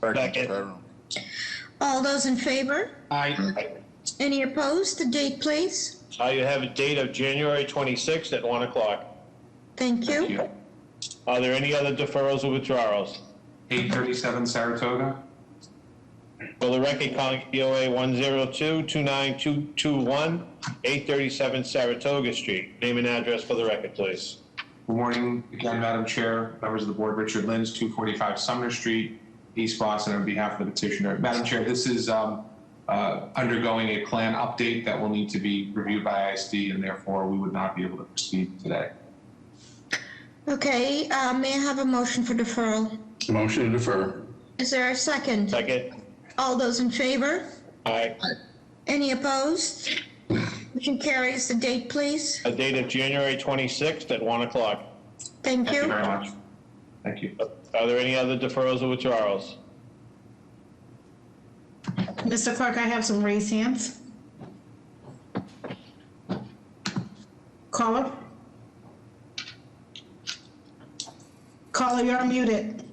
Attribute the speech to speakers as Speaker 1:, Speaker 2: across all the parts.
Speaker 1: Second.
Speaker 2: All those in favor?
Speaker 3: Aye.
Speaker 2: Any opposed? The date, please.
Speaker 1: Uh, you have a date of January 26th at 1 o'clock.
Speaker 2: Thank you.
Speaker 1: Are there any other deferrals or withdrawals?
Speaker 3: 837 Saratoga?
Speaker 1: For the record, calling BOA 102-29221, 837 Saratoga Street. Name and address for the record, please.
Speaker 3: Good morning again, Madam Chair, members of the board, Richard Lins, 245 Sumner Street, East Boston, on behalf of the petitioner. Madam Chair, this is um, uh, undergoing a plan update that will need to be reviewed by ISD, and therefore we would not be able to proceed today.
Speaker 2: Okay, uh, may I have a motion for deferral?
Speaker 4: Motion to defer.
Speaker 2: Is there a second?
Speaker 1: Second?
Speaker 2: All those in favor?
Speaker 1: Aye.
Speaker 2: Any opposed? Motion carries. The date, please.
Speaker 1: A date of January 26th at 1 o'clock.
Speaker 2: Thank
Speaker 3: Thank you very
Speaker 2: you.
Speaker 3: much. Thank you.
Speaker 1: Are there any other deferrals or withdrawals?
Speaker 5: Mr. Clerk, I have some raised hands. Caller? Caller, you're muted.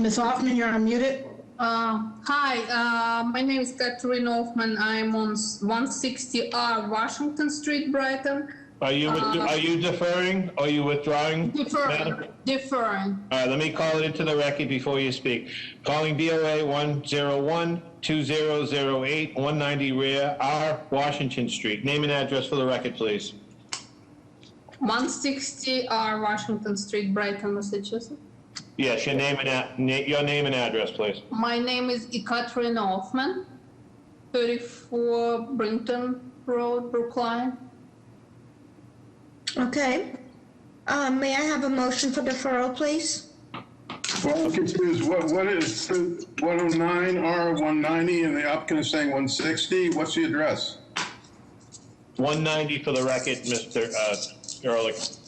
Speaker 5: Ms. Hoffman, you're unmuted.
Speaker 6: Uh, Hi, uh, my name is Catherine Hoffman. I'm on s- 160R Washington Street, Brighton.
Speaker 1: Are you, with- are you deferring? Are you withdrawing? Madam-
Speaker 6: Deferring, deferring.
Speaker 1: All right, let me call it into the record before you speak. Calling BOA 101-2008-190 Rear R, Washington Street. Name and address for the record, please.
Speaker 6: 160R Washington Street, Brighton, Massachusetts.
Speaker 1: Yes, your name and, a- na- your name and address, please.
Speaker 6: My name is Catherine Hoffman, 34 Brinton Road, Brookline.
Speaker 2: Okay. Uh, May I have a motion for deferral, please?
Speaker 4: Well, I'm confused, what, what is 109 R 190 and the applicant is saying 160? What's the address?
Speaker 1: 190 for the record, Mr. uh, Ehrlich.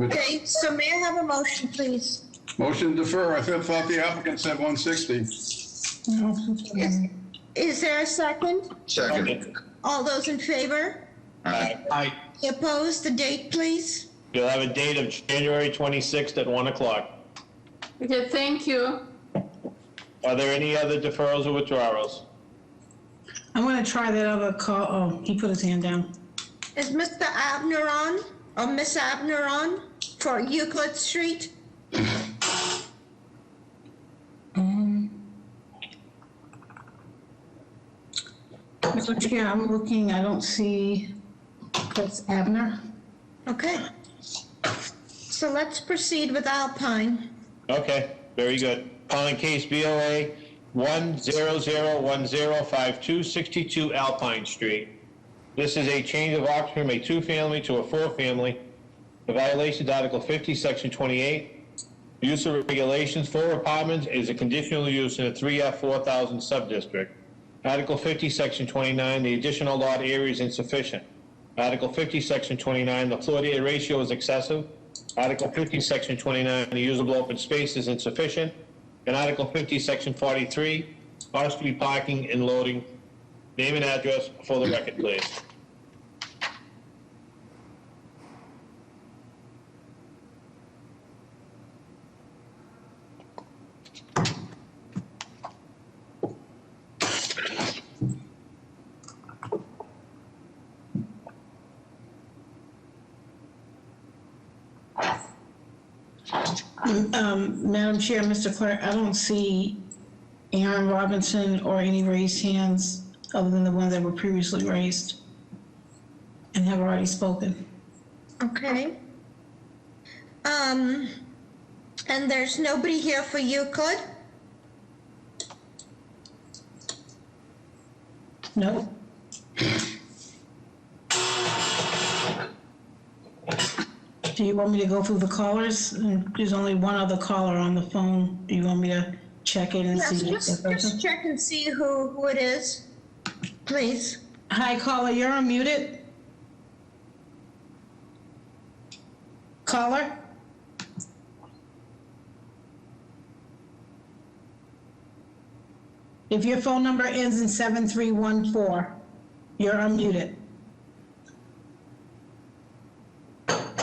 Speaker 2: Okay, so may I have a motion, please?
Speaker 4: Motion to defer, I thought thought the applicant said 160.
Speaker 2: Is- Is there a second?
Speaker 7: Second.
Speaker 2: All those in favor?
Speaker 7: Aye.
Speaker 3: Aye.
Speaker 2: Any Opposed? The date, please.
Speaker 1: You'll have a date of January 26th at 1 o'clock.
Speaker 6: Okay, thank you.
Speaker 1: Are there any other deferrals or withdrawals?
Speaker 5: I'm gonna try that other call, oh, he put his hand down.
Speaker 2: Is Mr. Abner on, or Miss Abner on, for Euclid Street?
Speaker 5: Mr. Chair, I'm looking, I don't see, that's Abner.
Speaker 2: Okay. So let's proceed with Alpine.
Speaker 1: Okay, very good. Calling case BOA 100105262 Alpine Street. This is a change of occupancy from a two-family to a four-family. The violation is Article 50, Section 28. Use of regulations, four apartments is a conditional use in a 3F 4,000 subdistrict. Article 50, Section 29, the additional lot area is insufficient. Article 50, Section 29, the floor area ratio is excessive. Article 50, Section 29, the usable open space is insufficient. And Article 50, Section 43, off-street parking and loading. Name and address for the record, please.
Speaker 5: Um, Madam Chair, Mr. Clerk, I don't see Aaron Robinson or any raised hands other than the ones that were previously raised and have already spoken.
Speaker 2: Okay. Um, and there's nobody here for Euclid?
Speaker 5: No? Do you want me to go through the callers? And There's only one other caller on the phone. Do you want me to check in and
Speaker 2: Yes,
Speaker 5: see? if
Speaker 2: just,
Speaker 5: that person-
Speaker 2: just check and see who, who it is, please.
Speaker 5: Hi, caller, you're unmuted. Caller? If your phone number ends in 7314, you're unmuted.